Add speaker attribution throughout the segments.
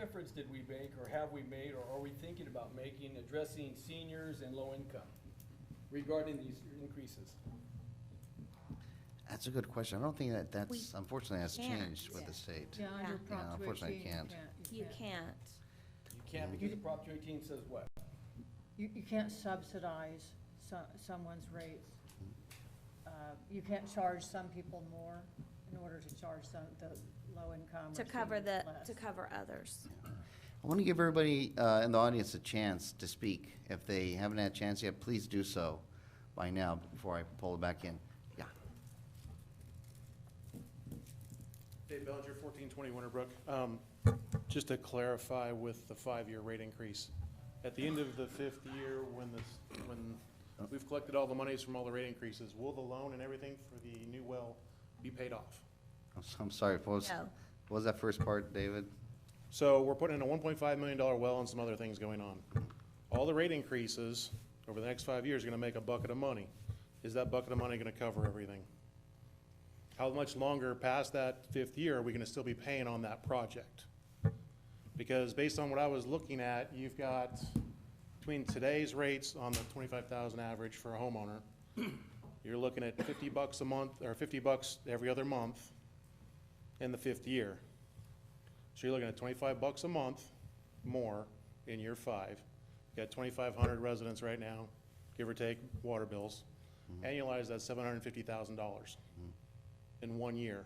Speaker 1: efforts did we make, or have we made, or are we thinking about making addressing seniors and low income regarding these increases?
Speaker 2: That's a good question. I don't think that
Speaker 3: We
Speaker 2: that's, unfortunately, that's
Speaker 3: can't.
Speaker 2: changed with the state.
Speaker 4: Yeah,
Speaker 3: Yeah.
Speaker 4: under
Speaker 2: Yeah,
Speaker 4: Prop two
Speaker 2: unfortunately,
Speaker 4: eighteen, you
Speaker 2: can't.
Speaker 4: can't.
Speaker 3: You can't.
Speaker 1: You can't, because Prop two eighteen says what?
Speaker 4: You, you can't subsidize so, someone's rates.
Speaker 2: Mm-hmm.
Speaker 4: Uh, You can't charge some people more in order to charge some, the low income or
Speaker 3: To cover the,
Speaker 4: seniors
Speaker 3: to
Speaker 4: less.
Speaker 3: cover others.
Speaker 2: I want to give everybody uh, in the audience a chance to speak. If they haven't had a chance yet, please do so by now before I pull it back in. Yeah.
Speaker 5: Dave Bellinger, 1420 Winterbrook. Um, Just to clarify with the five-year rate increase, at the end of the fifth year, when this, when we've collected all the monies from all the rate increases, will the loan and everything for the new well be paid off?
Speaker 2: I'm so- I'm sorry, what was,
Speaker 3: No.
Speaker 2: what was that first part, David?
Speaker 5: So we're putting in a 1.5 million dollar well and some other things going on. All the rate increases over the next five years are going to make a bucket of money. Is that bucket of money going to cover everything? How much longer past that fifth year are we going to still be paying on that project? Because based on what I was looking at, you've got between today's rates on the 25,000 average for a homeowner, you're looking at 50 bucks a month, or 50 bucks every other month in the fifth year. So you're looking at twenty-five bucks a month more in year five. You got twenty-five hundred residents right now, give or take, water bills. Annualize that's seven hundred and fifty thousand dollars in one year.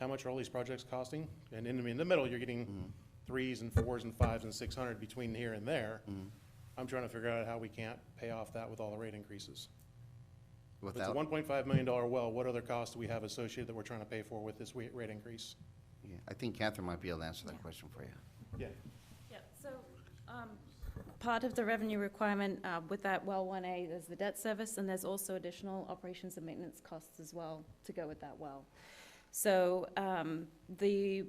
Speaker 5: How much are all these projects costing? And in, in the middle, you're getting threes and fours and fives and six hundred between here and there.
Speaker 2: Mm-hmm.
Speaker 5: I'm trying to figure out how we can't pay off that with all the rate increases. If it's a
Speaker 2: Without,
Speaker 5: one point five million dollar well, what other costs do we have associated that we're trying to pay for with this wa- rate increase?
Speaker 2: Yeah, I think Catherine might be able to answer that question for you.
Speaker 5: Yeah.
Speaker 6: Yep, so, um, part of the revenue requirement, uh, with that well one A is the debt service, and there's also additional operations and maintenance costs as well to go with that well. So, um, the,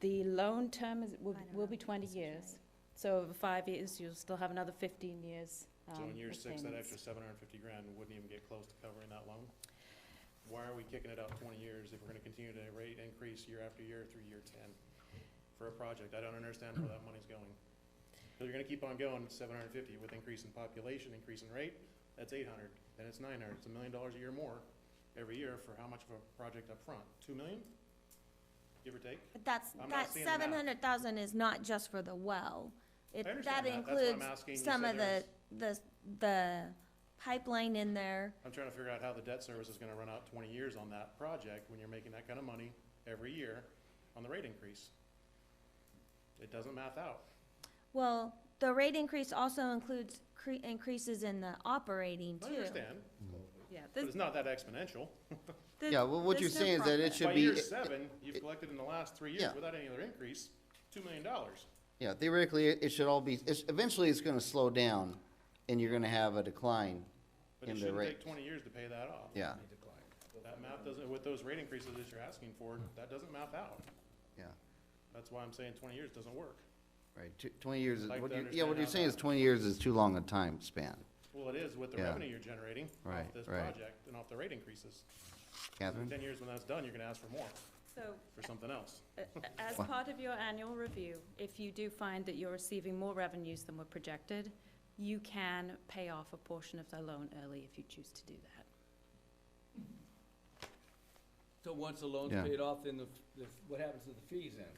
Speaker 6: the loan term is, will, will be twenty years. So over five years, you'll still have another fifteen years, um,
Speaker 5: So in year
Speaker 6: of
Speaker 5: six, that
Speaker 6: payments.
Speaker 5: extra seven hundred and fifty grand wouldn't even get close to covering that loan? Why are we kicking it out twenty years if we're gonna continue to rate increase year after year through year ten for a project? I don't understand where that money's going. Cause you're gonna keep on going, seven hundred and fifty with increase in population, increase in rate, that's eight hundred, then it's nine hundred, it's a million dollars a year more every year for how much of a project up front? Two million? Give or take?
Speaker 3: But that's,
Speaker 5: I'm not
Speaker 3: that
Speaker 5: seeing the math.
Speaker 3: seven hundred thousand is not just for the well. It-
Speaker 5: understand that. That's why I'm
Speaker 3: includes
Speaker 5: asking. You
Speaker 3: some of
Speaker 5: said
Speaker 3: the, the, the pipeline in there.
Speaker 5: I'm trying to figure out how the debt service is gonna run out twenty years on that project when you're making that kind of money every year on the rate increase. It doesn't math out.
Speaker 3: Well, the rate increase also includes cre- increases in the operating
Speaker 5: I
Speaker 3: too.
Speaker 5: understand,
Speaker 6: Yeah,
Speaker 5: but
Speaker 6: there's,
Speaker 5: it's not that exponential.
Speaker 6: there's.
Speaker 2: Yeah, well, what you're
Speaker 6: there's no
Speaker 2: saying is that it
Speaker 6: profit.
Speaker 2: should
Speaker 5: By
Speaker 2: be.
Speaker 5: year seven, you've collected in the last three years
Speaker 2: Yeah.
Speaker 5: without any other increase, two million dollars.
Speaker 2: Yeah, theoretically, it it should all be, it's, eventually it's gonna slow down and you're gonna have a decline
Speaker 5: But
Speaker 2: in
Speaker 5: it
Speaker 2: the
Speaker 5: shouldn't take
Speaker 2: rate.
Speaker 5: twenty years to pay that off.
Speaker 2: Yeah,
Speaker 5: That math doesn't, with those rate increases that you're asking for, that doesn't math out.
Speaker 2: yeah,
Speaker 5: That's why I'm saying twenty years doesn't work.
Speaker 2: right. Tw- Twenty years, is-
Speaker 5: Like
Speaker 2: what
Speaker 5: to
Speaker 2: you, yeah, what
Speaker 5: understand
Speaker 2: you're saying
Speaker 5: how
Speaker 2: is
Speaker 5: that-
Speaker 2: twenty years is too long a time span.
Speaker 5: Well, it is with the
Speaker 2: Yeah.
Speaker 5: revenue you're generating off
Speaker 2: Right,
Speaker 5: this
Speaker 2: right.
Speaker 5: project and off the rate increases. In
Speaker 2: Catherine?
Speaker 5: ten years, when that's done, you're gonna ask for more,
Speaker 6: So,
Speaker 5: for something else.
Speaker 6: A- uh, As
Speaker 2: Wow.
Speaker 6: part of your annual review, if you do find that you're receiving more revenues than were projected, you can pay off a portion of the loan early if you choose to do that.
Speaker 1: So once the loan's
Speaker 2: Yeah.
Speaker 1: paid off, then the, the- what happens to the fees then?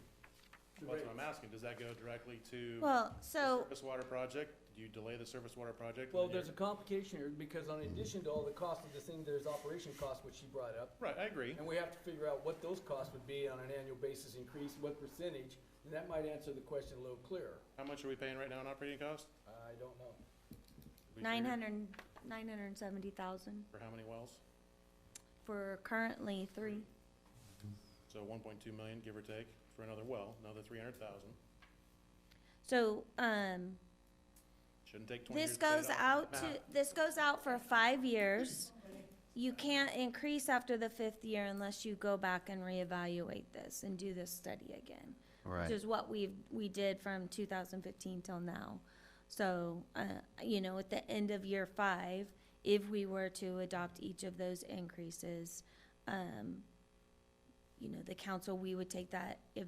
Speaker 5: That's what I'm asking, does that go directly to?
Speaker 3: Well,
Speaker 5: the
Speaker 3: so,
Speaker 5: Surface water project, do you delay the surface water project? and
Speaker 1: Well,
Speaker 5: then
Speaker 1: there's a
Speaker 5: you're-
Speaker 1: complication here, because in addition to all the cost of this thing, there's operation costs, which she brought up.
Speaker 5: Right, I agree,
Speaker 1: And we have to figure out what those costs would be on an annual basis increase, what percentage, and that might answer the question a little clearer.
Speaker 5: how much are we paying right now in operating costs?
Speaker 1: I don't know.
Speaker 5: We
Speaker 3: nine
Speaker 5: figured
Speaker 3: hundred, nine hundred and seventy thousand
Speaker 5: For how many wells?
Speaker 3: for currently three.
Speaker 5: So one point two million, give or take, for another well, another three hundred thousand,
Speaker 3: So, um,
Speaker 5: shouldn't take twenty years.
Speaker 3: This
Speaker 5: to pay it
Speaker 3: goes
Speaker 5: off.
Speaker 3: out to,
Speaker 5: Math.
Speaker 3: this goes out for five years. You can't increase after the fifth year unless you go back and reevaluate this and do this study again. Which
Speaker 2: Right,
Speaker 3: is what we've, we did from two thousand fifteen till now. So, uh, you know, at the end of year five, if we were to adopt each of those increases, um, you know, the council, we would take that, if